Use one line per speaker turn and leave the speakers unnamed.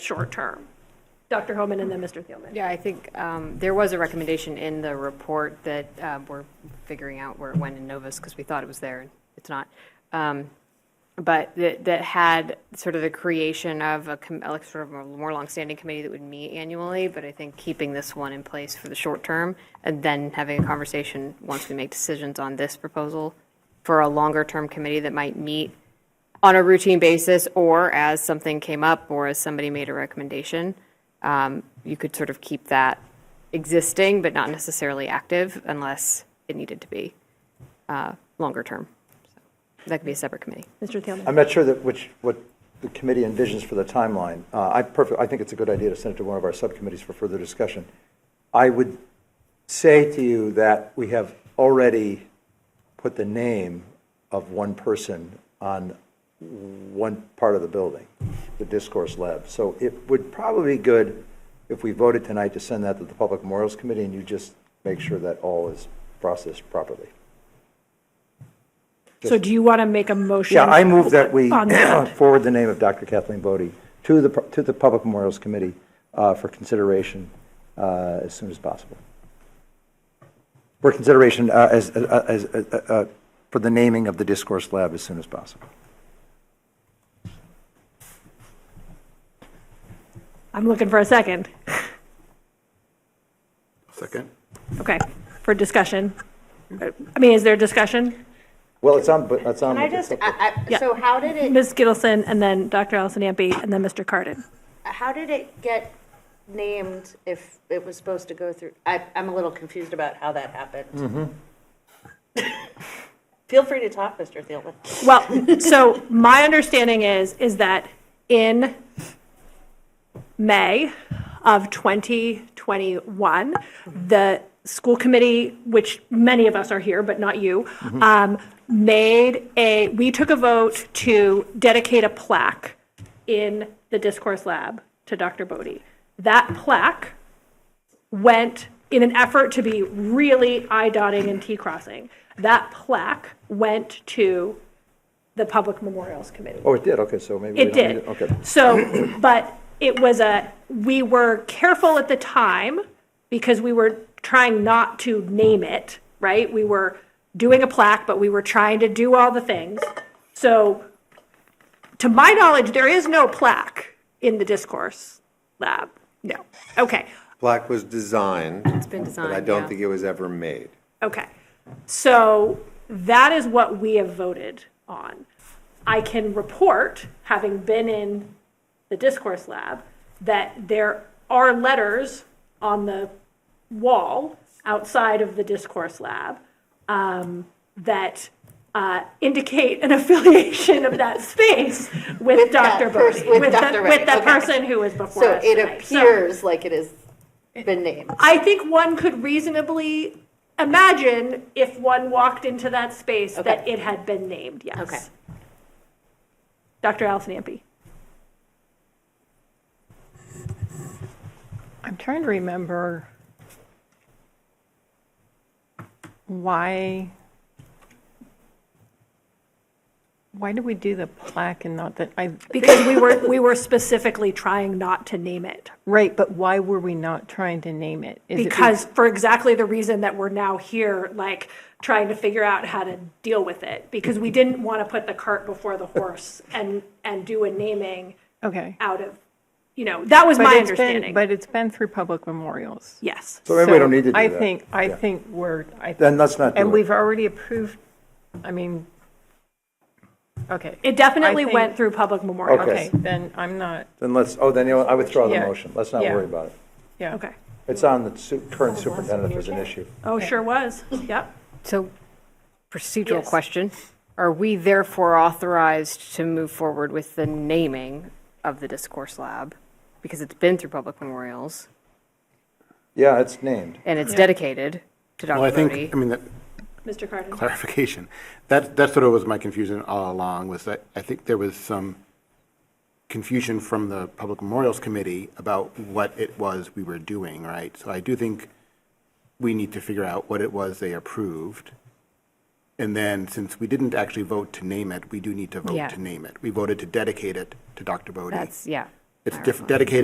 short term. Dr. Homan and then Mr. Thielman.
Yeah, I think um, there was a recommendation in the report that uh, we're figuring out where it went in Novus because we thought it was there. and It's not. Um, But that, that had sort of the creation of a, com- like sort of a more longstanding committee that would meet annually. But I think keeping this one in place for the short term and then having a conversation once we make decisions on this proposal for a longer term committee that might meet on a routine basis or as something came up or as somebody made a recommendation, um, you could sort of keep that existing but not necessarily active unless it needed to be uh, longer term. So That could be a separate committee.
Mr. Thielman.
I'm not sure that which, what the committee envisions for the timeline. Uh, I perfect, I think it's a good idea to send it to one of our subcommittees for further discussion. I would say to you that we have already put the name of one person on one part of the building, the discourse lab. So it would probably be good if we voted tonight to send that to the Public Memorials Committee and you just make sure that all is processed properly.
So do you want to make a motion?
Yeah, I move that we
On that.
forward the name of Dr. Kathleen Bodie to the, to the Public Memorials Committee uh, for consideration uh, as soon as possible. For consideration uh, as, uh, as, uh, uh, uh, for the naming of the Discourse Lab as soon as possible.
I'm looking for a second.
Second.
Okay, for discussion. I mean, is there discussion?
Well, it's on, but it's on.
Can I just, I- I-
Yeah.
so how did it,
Ms. Gittleson and then Dr. Allison Ampe and then Mr. Cardin.
how did it get named if it was supposed to go through? I, I'm a little confused about how that happened. Feel free to talk, Mr. Thielman.
Well, so my understanding is, is that in May of 2021, the school committee, which many of us are here, but not you, um, made a, we took a vote to dedicate a plaque in the discourse lab to Dr. Bodie. That plaque went in an effort to be really I dotting and T crossing. That plaque went to the Public Memorials Committee.
Oh, it did, okay, so maybe. we
It
don't need
did.
Okay.
So, but it was a, we were careful at the time because we were trying not to name it, right? We were doing a plaque, but we were trying to do all the things. So to my knowledge, there is no plaque in the discourse lab. No. Okay.
Black was designed. It's
been
But I
designed, yeah.
don't think it was ever made.
Okay. So that is what we have voted on. I can report, having been in the discourse lab, that there are letters on the wall outside of the discourse lab um, that uh, indicate an affiliation of that space with,
With that
Dr.
pers-
Bodie,
with
the,
Dr.
with the
Bodie, okay.
person who was before
So
us
it
tonight. So-
appears like it has been named.
I think one could reasonably imagine if one walked into that space that
Okay.
it had been named, yes.
Okay.
Dr. Allison Ampe.
I'm trying to remember why, why did we do the plaque and not the, I,
Because we were, we were specifically trying not to name it.
right, but why were we not trying to name it? Is it be-
Because, for exactly the reason that we're now here, like, trying to figure out how to deal with it. Because we didn't want to put the cart before the horse and, and do a naming
Okay.
out of, you know, that was
But
my
it's been-
understanding.
But it's been through public memorials.
Yes.
So maybe we don't need to do
I
that.
think, I
Yeah.
think we're, I.
Then let's not do
And
it.
we've already approved, I mean, okay.
It definitely
I think-
went through public memorial.
Okay.
Okay, then I'm not,
Then let's, oh, then, you know, what, I withdraw the
Yeah.
motion, let's not
Yeah.
worry about it.
yeah.
Okay.
It's on the su- current superintendent as an issue.
Oh, sure was. Yep.
So procedural
Yes.
question. Are we therefore authorized to move forward with the naming of the discourse lab? Because it's been through public memorials
Yeah, it's named.
and it's dedicated to Dr.
Well, I
Bodie.
think, I mean, that
Mr. Cardin.
clarification, that, that sort of was my confusion all along, was that I think there was some confusion from the Public Memorials Committee about what it was we were doing, right? So I do think we need to figure out what it was they approved. And then, since we didn't actually vote to name it, we do need to
Yeah.
vote to name it. We voted to dedicate it to Dr. Bodie.
That's, yeah.
It's diff- dedicated